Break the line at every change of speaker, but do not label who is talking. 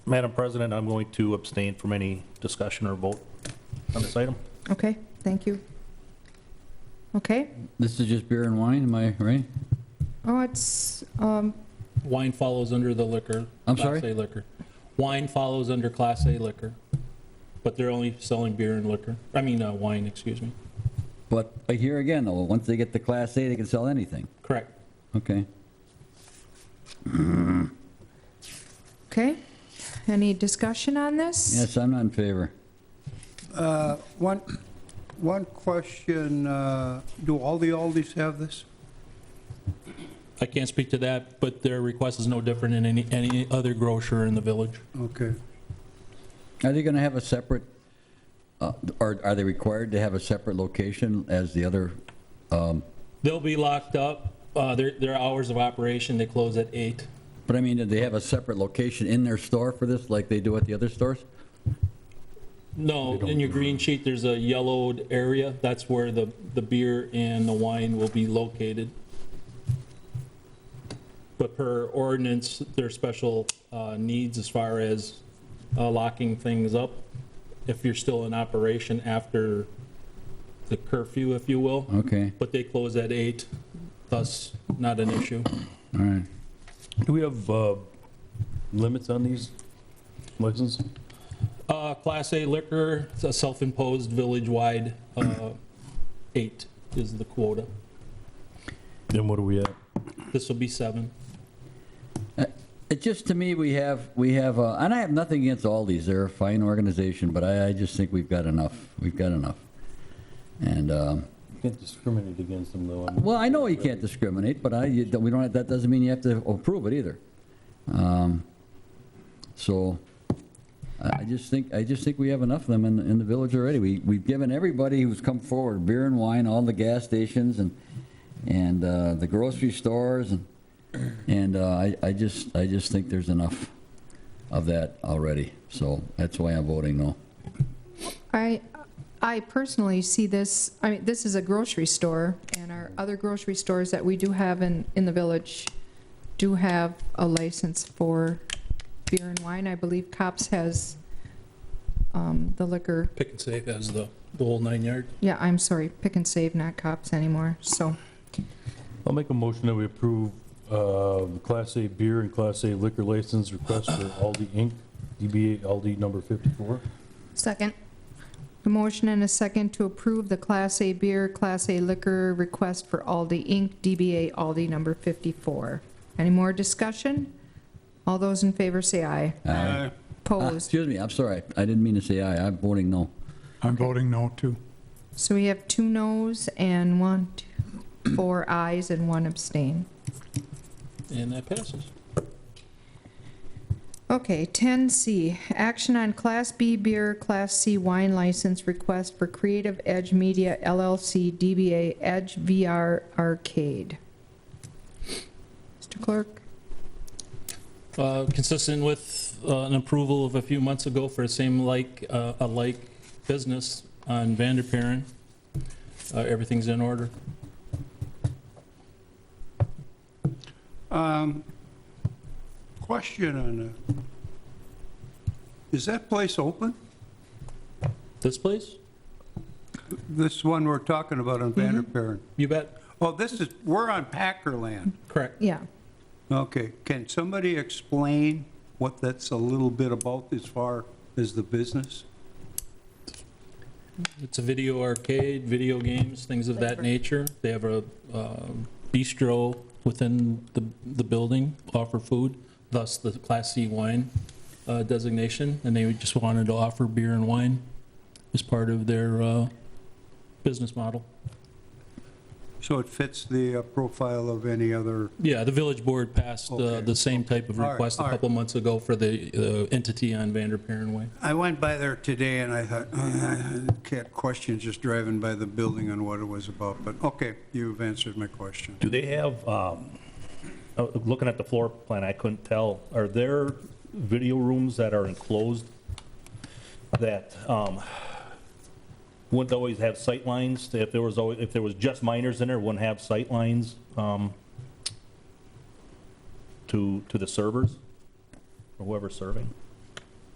Madam President, I'm going to abstain from any discussion or vote on this item.
Okay, thank you. Okay,
This is just beer and wine, am I right?
oh, it's, um,
Wine follows under the liquor.
I'm
Class
sorry?
A liquor. Wine follows under Class A liquor, but they're only selling beer and liquor, I mean, uh, wine, excuse me.
But but here again, though, once they get the Class A, they can sell anything.
Correct.
Okay.
okay. Any discussion on this?
Yes, I'm not in favor.
Uh, One, one question, uh, do all the Aldis have this?
I can't speak to that, but their request is no different than any, any other grocer in the village.
Okay.
Are they going to have a separate, uh, or are they required to have a separate location as the other?
They'll be locked up, uh, their, their hours of operation, they close at eight.
But I mean, do they have a separate location in their store for this, like they do at the other stores?
No, in your green sheet, there's a yellowed area, that's where the, the beer and the wine will be located. But per ordinance, there are special uh, needs as far as uh, locking things up, if you're still in operation after the curfew, if you will.
Okay,
But they close at eight, thus not an issue.
all right.
Do we have uh, limits on these licenses?
Uh, Class A liquor, it's a self-imposed village-wide, uh, eight is the quota.
Then what do we have?
This will be seven.
It just, to me, we have, we have, uh, and I have nothing against Aldi's, they're a fine organization, but I, I just think we've got enough, we've got enough. And, um,
Can't discriminate against them, though. I mean-
well, I know you can't discriminate, but I, you, we don't, that doesn't mean you have to approve it either. Um, So, I I just think, I just think we have enough of them in, in the village already. We, we've given everybody who's come forward, beer and wine, all the gas stations and, and uh, the grocery stores, and, and uh, I, I just, I just think there's enough of that already. So that's why I'm voting no.
I, I personally see this, I mean, this is a grocery store, and our other grocery stores that we do have in, in the village do have a license for beer and wine. I believe Cops has um, the liquor,
Pick and save as the, the whole nine yard.
yeah, I'm sorry, Pick and Save, not Cops anymore, so,
I'll make a motion that we approve uh, the Class A beer and Class A liquor license request for Aldi Inc., DBA Aldi number 54.
Second.
a motion and a second to approve the Class A beer, Class A liquor request for Aldi Inc., DBA Aldi number 54. Any more discussion? All those in favor say aye.
Aye. Ah,
Opposed?
Excuse me, I'm sorry, I didn't mean to say aye, I'm voting no.
I'm voting no, too.
So we have two noes and one, two- four ayes and one abstain.
And that passes.
Okay, 10C, action on Class B beer, Class C wine license request for Creative Edge Media LLC DBA Edge VR Arcade. Mr. Clerk?
Uh, Consistent with uh, an approval of a few months ago for a same like, uh, a like business on Vanderparen, uh, everything's in order.
Um, Question on, uh, is that place open?
This place?
This one we're talking about on Vanderparen?
You bet.
Oh, this is, we're on Packer land.
Correct.
Yeah.
Okay, can somebody explain what that's a little bit about as far as the business?
It's a video arcade, video games, things of that nature. They have a um, bistro within the, the building, offer food, thus the Class C wine uh, designation, and they just wanted to offer beer and wine as part of their uh, business model.
So it fits the uh, profile of any other,
Yeah, the village board passed uh,
Okay,
the same type of
All right,
request a
all right.
couple months ago for the uh, entity on Vanderparen Way.
I went by there today and I thought, "Ah, can't question just driving by the building and what it was about, but okay, you've answered my question.
Do they have, um, uh, looking at the floor plan, I couldn't tell, are there video rooms that are enclosed that um, wouldn't always have sight lines? If there was, always- if there was just minors in there, wouldn't have sight lines um, to, to the servers, or whoever's serving?